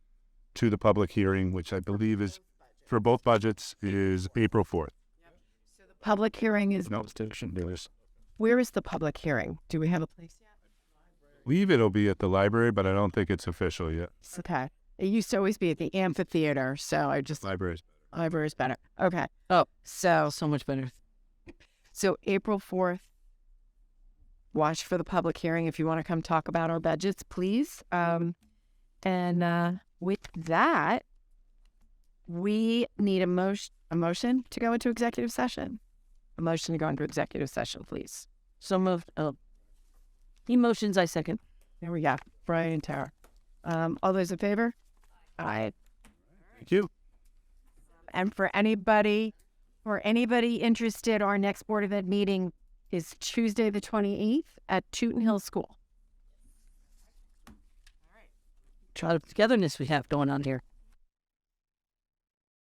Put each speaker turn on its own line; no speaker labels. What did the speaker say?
to the public hearing, which I believe is for both budgets is April fourth.
Public hearing is,
No,
where is the public hearing? Do we have a place yet?
leave it'll be at the library, but I don't think it's official yet.
It's Okay. It used to always be at the amphitheater, so I just,
Libraries.
library is better. Okay.
Oh.
So,
so much better.
so April 4th, watch for the public hearing if you want to come talk about our budgets, please. Um, and uh, with that, we need a motion, a motion to go into executive session. A motion to go into executive session, please.
So moved. Oh. Emotions, I second.
There we go. Brian and Tara. Um, all those in favor? Aye.
Thank you.
And for anybody, for anybody interested, our next Board of Ed meeting is Tuesday, the 28th at Tooten Hill School.
Try the togetherness we have going on here.